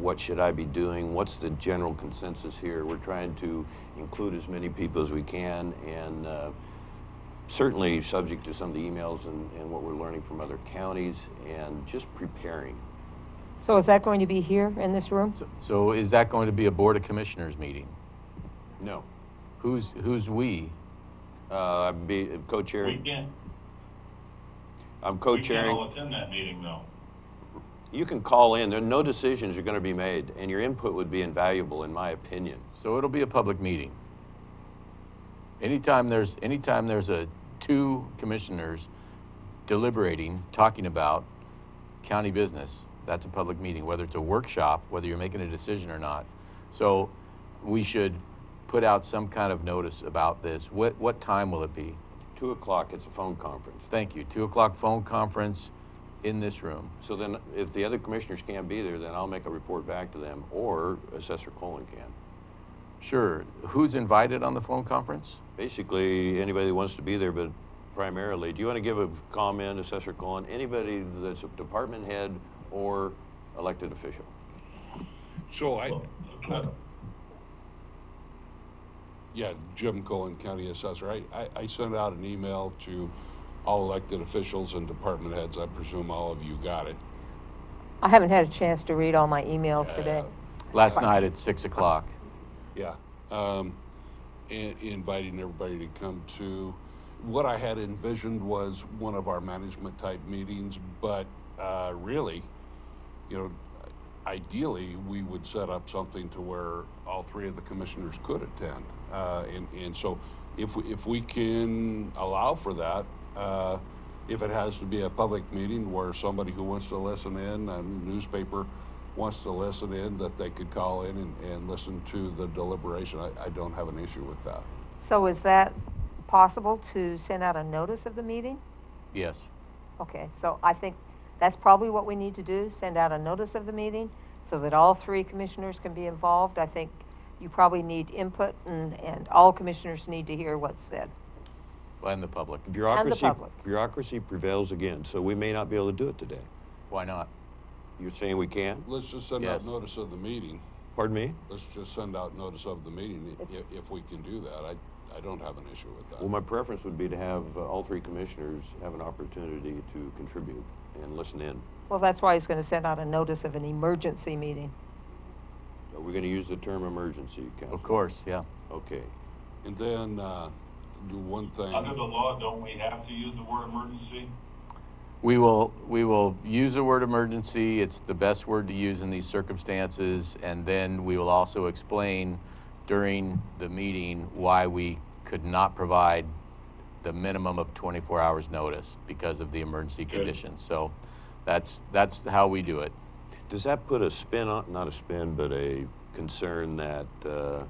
what should I be doing? What's the general consensus here? We're trying to include as many people as we can and uh, certainly subject to some of the emails and, and what we're learning from other counties and just preparing. So is that going to be here in this room? So- So is that going to be a Board of Commissioners meeting? No, Who's, who's we? uh, I'd be We co-chairing. can't, I'm we can't co-chairing. all attend that meeting though. You can call in. There, no decisions are going to be made, and your input would be invaluable, in my opinion. So it'll be a public meeting. Anytime there's, anytime there's a, two commissioners deliberating, talking about county business, that's a public meeting, whether it's a workshop, whether you're making a decision or not. So we should put out some kind of notice about this. What, what time will it be? Two o'clock, it's a phone conference. Thank you. Two o'clock phone conference in this room. So then, if the other commissioners can't be there, then I'll make a report back to them, or Assessor Colin can. Sure. Who's invited on the phone conference? Basically, anybody that wants to be there, but primarily, do you want to give a comment, Assessor Colin? Anybody that's a department head or elected official? So I, But- yeah, Jim Cohen, County Assessor, I, I, I sent out an email to all elected officials and department heads, I presume all of you got it. I haven't had a chance to read all my emails today. Last night at six o'clock. Yeah. Um, and inviting everybody to come to, what I had envisioned was one of our management type meetings, but, uh, really, you know, ideally, we would set up something to where all three of the commissioners could attend. Uh, and, and so if, we- if we can allow for that, uh, if it has to be a public meeting where somebody who wants to listen in, a newspaper wants to listen in, that they could call in and, and listen to the deliberation, I, I don't have an issue with that. So is that possible to send out a notice of the meeting? Yes. Okay, so I think that's probably what we need to do, send out a notice of the meeting so that all three commissioners can be involved. I think you probably need input and, and all commissioners need to hear what's said. And the public. Bureaucracy, public. bureaucracy prevails again, so we may not be able to do it today. Why not? You're saying we can't? Let's just send out Yes. notice of the meeting. Pardon me? Let's just send out notice of the meeting, i- It's- if, if we can do that. I, I don't have an issue with that. Well, my preference would be to have uh, all three commissioners have an opportunity to contribute and listen in. Well, that's why he's going to send out a notice of an emergency meeting. Are we going to use the term emergency, Council? Of course, yeah. Okay. And then, uh, do one thing. Under the law, don't we have to use the word emergency? We will, we will use the word emergency. It's the best word to use in these circumstances. And then we will also explain during the meeting why we could not provide the minimum of 24 hours notice because of the emergency conditions. So that's, that's how we do it. Does that put a spin on, not a spin, but a concern that uh,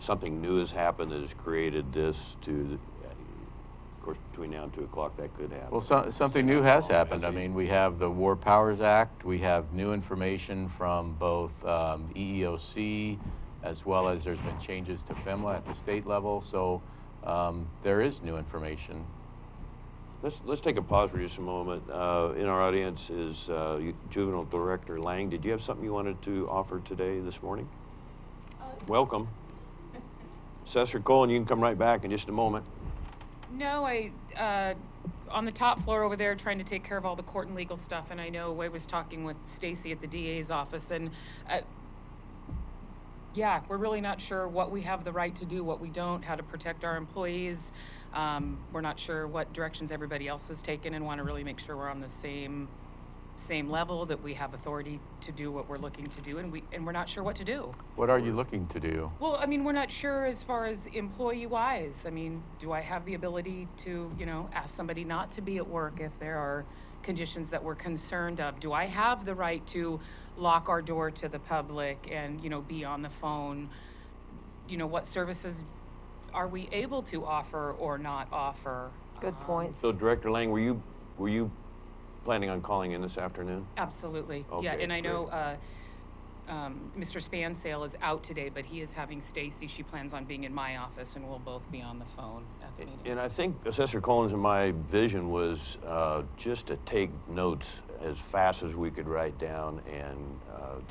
something new has happened that has created this to, the, of course, between now and 2 o'clock, that could happen. Well, so, something new has happened. I mean, we have the War Powers Act, we have new information from both um, EEOC, as well as there's been changes to FEMLA at the state level, so um, there is new information. Let's, let's take a pause for just a moment. Uh, in our audience is uh, Juvenile Director Lang. Did you have something you wanted to offer today, this morning? Welcome. Assessor Cohen, you can come right back in just a moment. No, I, uh, on the top floor over there, trying to take care of all the court and legal stuff, and I know I was talking with Stacy at the DA's office, and, uh, yeah, we're really not sure what we have the right to do, what we don't, how to protect our employees. Um, we're not sure what directions everybody else has taken and want to really make sure we're on the same, same level, that we have authority to do what we're looking to do, and we, and we're not sure what to do. What are you looking to do? Well, I mean, we're not sure as far as employee wise. I mean, do I have the ability to, you know, ask somebody not to be at work if there are conditions that we're concerned of? Do I have the right to lock our door to the public and, you know, be on the phone? You know, what services are we able to offer or not offer? Good Um, points. So, Director Lang, were you, were you planning on calling in this afternoon? Absolutely, yeah, Okay, and I know, great. uh, um, Mr. Spansale is out today, but he is having Stacy, she plans on being in my office, and we'll both be on the phone at the meeting. And I think Assessor Collins and my vision was uh, just to take notes as fast as we could write down and uh,